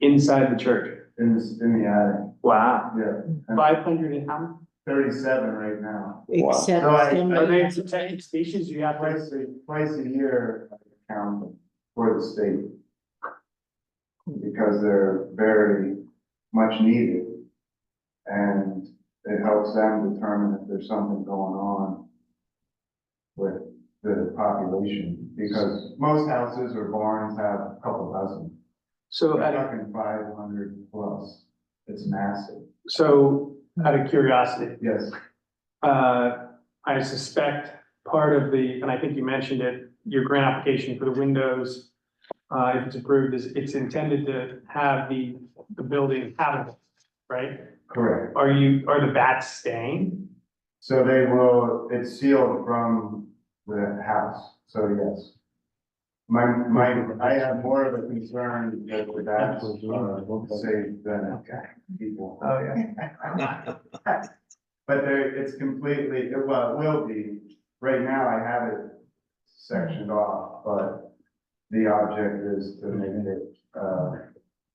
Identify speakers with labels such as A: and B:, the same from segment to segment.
A: inside the church.
B: in the, in the attic,
A: Wow,
B: yeah,
A: five hundred and how?
B: thirty-seven right now.
C: Except
B: No, I-
A: Are
C: somebody
A: they
C: has to
A: protected species you have? to-
B: Twice a, twice a year, I count them for the state. Because they're very much needed. And it helps them determine if there's something going on with the population, because most houses or barns have a couple dozen.
A: So,
B: We're
A: out of-
B: talking five hundred plus, it's massive,
A: so out of curiosity,
B: yes.
A: uh, I suspect part of the, and I think you mentioned it, your grant application for the windows, uh, if it's approved, is it's intended to have the, the building habitable, right?
B: Correct.
A: Are you, are the bats staying?
B: So they will, it's sealed from the house, so yes. My, my, I have more of a concern that the bats are safe than people.
A: Oh, yeah.
B: But there, it's completely, well, it will be, right now I have it sectioned off, but the object is to make it, uh,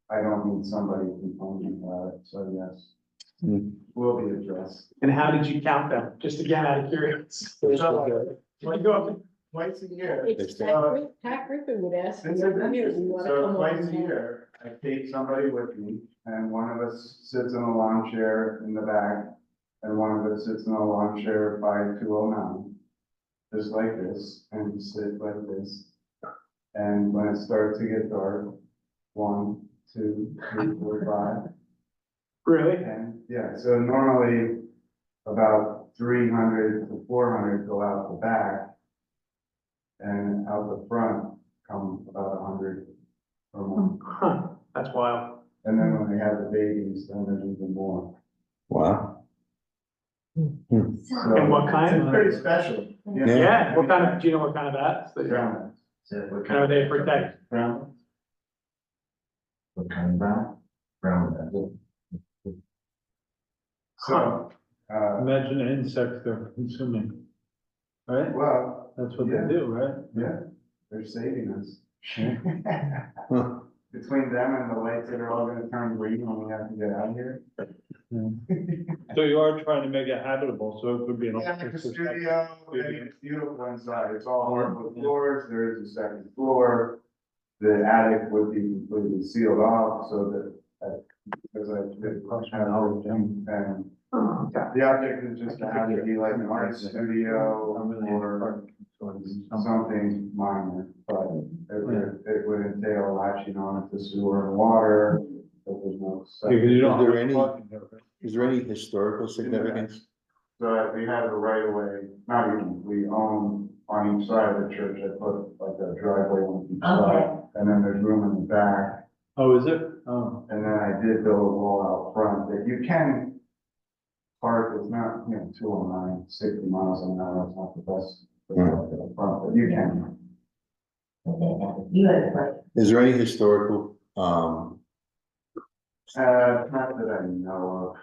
B: I don't need somebody complaining about it, so yes,
A: Hmm.
B: will be addressed.
A: And how did you count them? Just again, out of curiosity. When you go up,
B: Twice a year.
C: It's Pat Gri- Pat Griffin would ask.
B: uh, It's
C: you,
B: an
C: "Come here, you
B: interesting,
C: wanna
B: so
C: come
B: twice
C: over
B: a
C: now?"
B: year, I take somebody with me, and one of us sits in a lawn chair in the back, and one of us sits in a lawn chair by two oh nine, just like this, and you sit like this. And when it starts to get dark, one, two, three, four, five,
A: Really?
B: and, yeah, so normally about three hundred to four hundred go out the back. And out the front come about hundred or
A: Hmm.
B: more.
A: Huh, that's wild.
B: And then when they have the babies, then there's even more.
D: Wow.
B: So
A: And what kind?
B: It's pretty special. you know?
A: Yeah, what kind of, do you know what kind of bats? that-
B: Brown.
A: How are they protected?
B: Brown.
D: What kind of brown? Brown.
B: So, uh,
E: Imagine an insect they're consuming. Right?
B: well,
E: That's what they do, right?
B: yeah, they're saving us.
D: Huh.
B: Between them and the lights that are all gonna turn green when we have to get out of here.
E: So you are trying to make it habitable, so it could be an.
B: Yeah, like a
E: office or something.
B: studio, I mean, it's beautiful inside, it's all hardwood floors, there is a second floor. The attic would be completely sealed off so that, uh, because I did a question on and
A: Oh, okay.
B: the object is just to have it be like an art studio or something minor, but it would, it would entail latching on to sewer and water. if there's no
E: Because
B: septic.
E: you don't.
D: Is there
E: have
D: any-
E: plumbing there, right?
D: Is there any historical significance?
B: So that we have the right of way, not even, we own on each side of the church, I put like a driveway on each side. And then there's room in the back,
E: Oh, is it? Oh,
B: and then I did build a wall out front that you can park, it's not, you know, 209, 60 miles an hour, it's not the best. for
D: Hmm.
B: parking up front, But you can,
F: You had a question.
D: Is there any historical, um,
B: uh, not that I know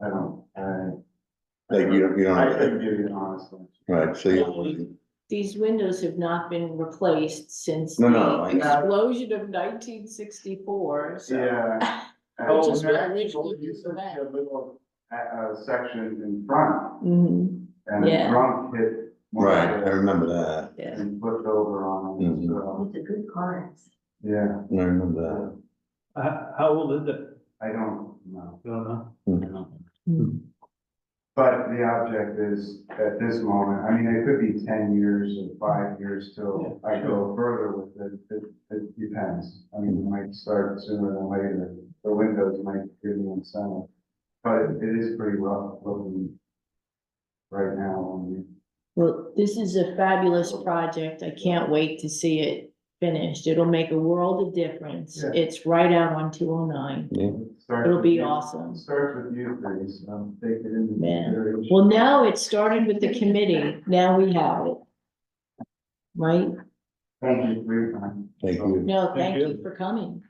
B: of, I don't, I.
D: like you don't, you
B: I
D: don't,
B: couldn't give you an honest answer.
D: right, so you.
C: These windows have not been replaced since
D: No, no,
C: the
D: I-
C: explosion of nineteen sixty-four, so.
B: Yeah.
C: Oh,
B: And
C: just
B: there
C: the
B: actually
C: original
B: was
C: use of that.
B: A little, uh, uh, section in front,
F: Mm-hmm.
C: Mhm,
B: and the
C: Yeah.
B: front hit. one
D: Right,
B: of
D: I
B: the-
D: remember that.
C: yeah.
B: And flipped over on
D: Mhm.
B: it, so,
F: It's a good card.
B: yeah,
D: I remember that.
E: how, how old is it?
B: I don't know.
E: I don't know.
B: I
D: Hmm.
B: don't.
C: Hmm.
B: But the object is, at this moment, I mean, it could be ten years or five years till I go further with it, it, it depends. I mean, it might start sooner than later, the windows might give me incentive, but it- it is pretty rough looking right now on you.
C: Well, this is a fabulous project. I can't wait to see it finished. It'll make a world of difference.
B: Yeah.
C: It's right out on two oh nine.
B: Starts
C: It'll
B: with
C: be
B: you-
C: awesome.
B: Starts with you, please, um, take it into
C: Yeah.
B: consideration.
C: Well, now it started with the committee. Now we have it. Right?
B: Thank you for your time.
D: Thank you.
C: No,
E: Thank
C: thank you
E: you.
C: for coming.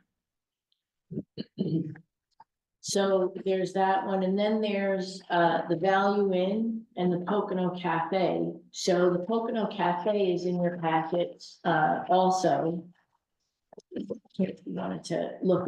C: So there's that one, and then there's uh the Value Inn and the Pocono Cafe. So the Pocono Cafe is in your packets uh also. If you wanted to look